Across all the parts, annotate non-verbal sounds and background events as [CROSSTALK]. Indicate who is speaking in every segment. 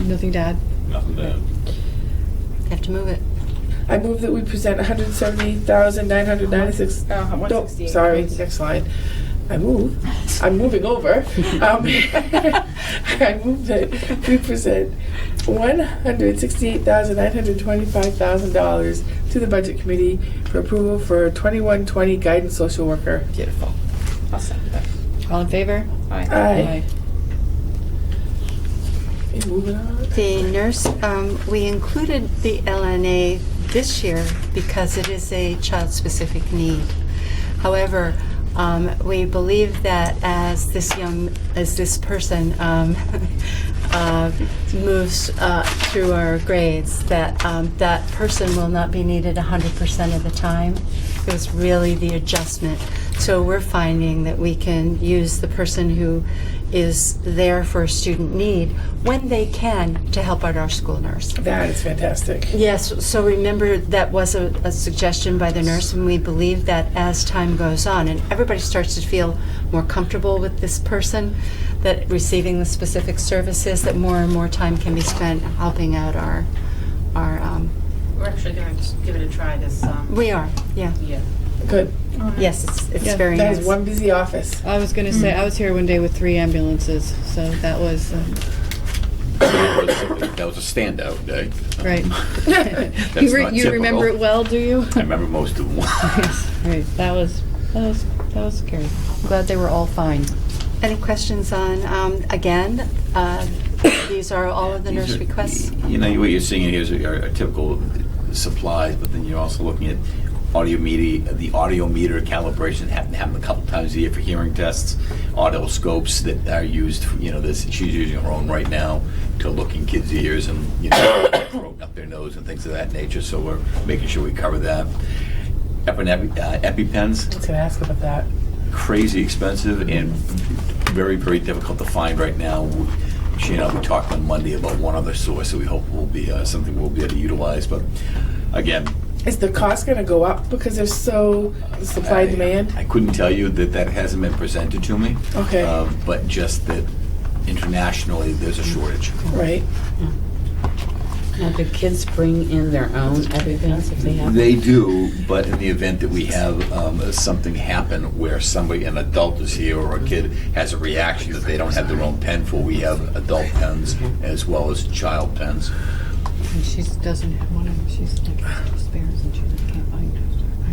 Speaker 1: Nothing to add?
Speaker 2: Nothing to
Speaker 3: Have to move it.
Speaker 4: I move that we present $178,996.
Speaker 1: Oh,
Speaker 5: Uh,
Speaker 4: No,
Speaker 5: 168.
Speaker 4: sorry, next slide. I move, I'm moving
Speaker 3: [LAUGHS]
Speaker 4: over. Um, [LAUGHS]
Speaker 1: Um,
Speaker 4: I move that we present $168,925,000 to the Budget Committee for approval for 2120 Guidance Social Worker. Beautiful.
Speaker 5: I'll second that.
Speaker 1: [LAUGHS] All in favor?
Speaker 5: Aye.
Speaker 4: Aye. Okay, Moving on.
Speaker 3: The nurse, um, we included the LNA this year because it is a child-specific need. However, um, we believe that as this young, as this person um, [LAUGHS] uh, moves uh, through our grades, that um, that person will not be needed 100% of the time. It was really the adjustment. So we're finding that we can use the person who is there for a student need when they can to help out our school nurse.
Speaker 4: That is fantastic.
Speaker 3: Yes, so remember that was a, a suggestion by the nurse, and we believe that as time goes on and everybody starts to feel more comfortable with this person, that receiving the specific services, that more and more time can be spent helping out our, our, um,
Speaker 5: We're actually gonna just give it a try this, um,
Speaker 3: we are, yeah.
Speaker 5: year.
Speaker 4: Good.
Speaker 6: Oh,
Speaker 3: Yes, it's, it's
Speaker 1: Yeah,
Speaker 3: very
Speaker 4: That
Speaker 3: nice.
Speaker 4: is one busy office.
Speaker 1: I was gonna say, I was here one day with three ambulances, so that was, um,
Speaker 2: add. That was a standout day. [LAUGHS]
Speaker 1: right.
Speaker 2: That's
Speaker 1: You re-
Speaker 2: not
Speaker 1: You remember it
Speaker 2: typical.
Speaker 1: well,
Speaker 2: [LAUGHS]
Speaker 1: do you? [LAUGHS]
Speaker 2: I remember most of them.
Speaker 1: Yes, right, that was, that was, that was scary. I'm Glad they were all fine.
Speaker 3: Any questions on, um, again, uh, these are all of the nurse
Speaker 2: These are-
Speaker 3: requests?
Speaker 2: You know, what you're seeing here is are are typical supplies, but then you're also looking at audio media, the audio meter calibration happened, happened a couple times a year for hearing tests, audio scopes that are used, you know, this, she's using her own right now to look in kids' ears and, you know, probe up their nose and things of that nature, so we're making sure we cover that. Epinepi- uh, EpiPens,
Speaker 4: I was gonna ask about that.
Speaker 2: crazy expensive and very, very difficult to find right now. She and I, we talked on Monday about one other source that we hope will be, uh, something we'll be able to utilize, but again.
Speaker 4: Is the cost going to go up because there's so supply
Speaker 3: Uh,
Speaker 2: I-
Speaker 4: and demand?
Speaker 2: I couldn't tell you that that hasn't been presented to me.
Speaker 4: Okay.
Speaker 2: uh, But just that internationally, there's a shortage.
Speaker 4: Right.
Speaker 7: Now, do kids bring in their own EpiPens if they have?
Speaker 2: They do, but in the event that we have um, something happen where somebody, an adult is here or a kid has a reaction that they don't have their own pen for, we have adult pens as well as child pens.
Speaker 1: And she doesn't have one, and she's like, spares, and she can't find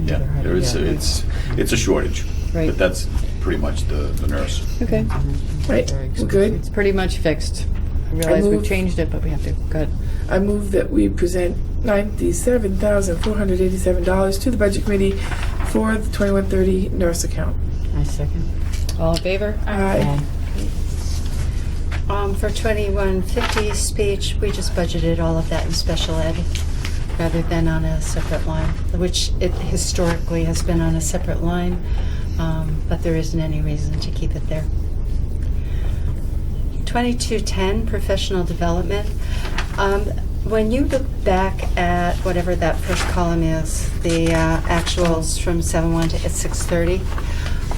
Speaker 1: it.
Speaker 2: Yeah, there is, it's, it's a shortage,
Speaker 1: Right.
Speaker 2: but that's pretty much the, the nurse.
Speaker 1: Okay,
Speaker 4: Right. We're good.
Speaker 1: it's pretty much fixed. I realize
Speaker 4: move-
Speaker 1: we've changed it, but we have to, good.
Speaker 4: I move that we present ninety-seven thousand four hundred eighty-seven dollars to the budget committee for the twenty-one thirty nurse account.
Speaker 7: I second.
Speaker 1: All in favor?
Speaker 4: Aye.
Speaker 3: Um, for 2150 speech, we just budgeted all of that in special ed rather than on a separate line, which it historically has been on a separate line, um, but there isn't any reason to keep it there. 2210, professional development. Um, When you look back at whatever that first column is, the uh, actuals from 7/1 to 6/30,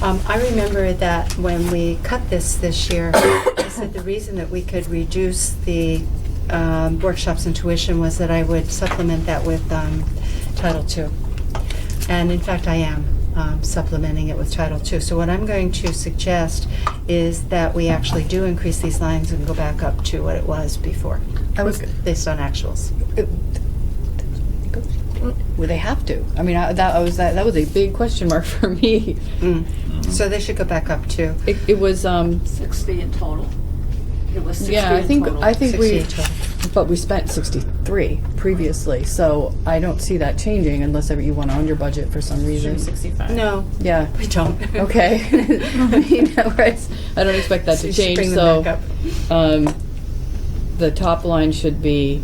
Speaker 3: um, I remember that when we cut this this year, I said the reason that we could reduce the um, workshops and tuition was that I would supplement that with um, Title II. And in fact, I am um, supplementing it with Title II. So what I'm going to suggest is that we actually do increase these lines and go back up to what it was before,
Speaker 1: I was,
Speaker 3: based on actuals.
Speaker 1: well, they have to. I mean, I, that I was, that that was a big question mark [LAUGHS] for me.
Speaker 3: Mm. So they should go back up to
Speaker 1: It, it was, um,
Speaker 6: 60 in total. It was 60 in
Speaker 1: yeah,
Speaker 6: total.
Speaker 1: I think, I think we,
Speaker 3: 68.
Speaker 1: but we spent sixty-three previously, so I don't see that changing unless ever you want to under budget for some reason.
Speaker 5: Sixty-five.
Speaker 3: No,
Speaker 1: Yeah,
Speaker 3: we don't.
Speaker 1: okay.
Speaker 3: [LAUGHS]
Speaker 1: [LAUGHS] I mean, right, I don't expect that to
Speaker 3: You should
Speaker 1: change,
Speaker 3: bring them
Speaker 1: so.
Speaker 3: back up.
Speaker 1: Um, the top line should be,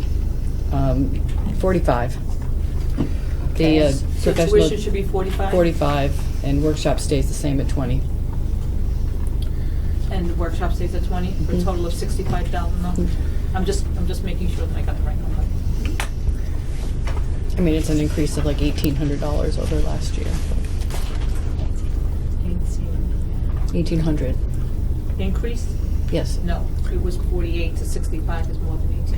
Speaker 1: um, forty-five. The uh,
Speaker 6: So
Speaker 1: professional,
Speaker 6: tuition should be 45?
Speaker 1: forty-five, and workshop stays the same at twenty.
Speaker 6: And the workshop stays at 20, for
Speaker 1: Mm-hmm.
Speaker 6: a total of 65,000 though? I'm just, I'm just making sure that I got the right number.
Speaker 1: I mean, it's an increase of like eighteen hundred dollars over last year. Eighteen hundred.
Speaker 6: Increase?
Speaker 1: Yes.
Speaker 6: No, it was 48 to 65 is more than 18.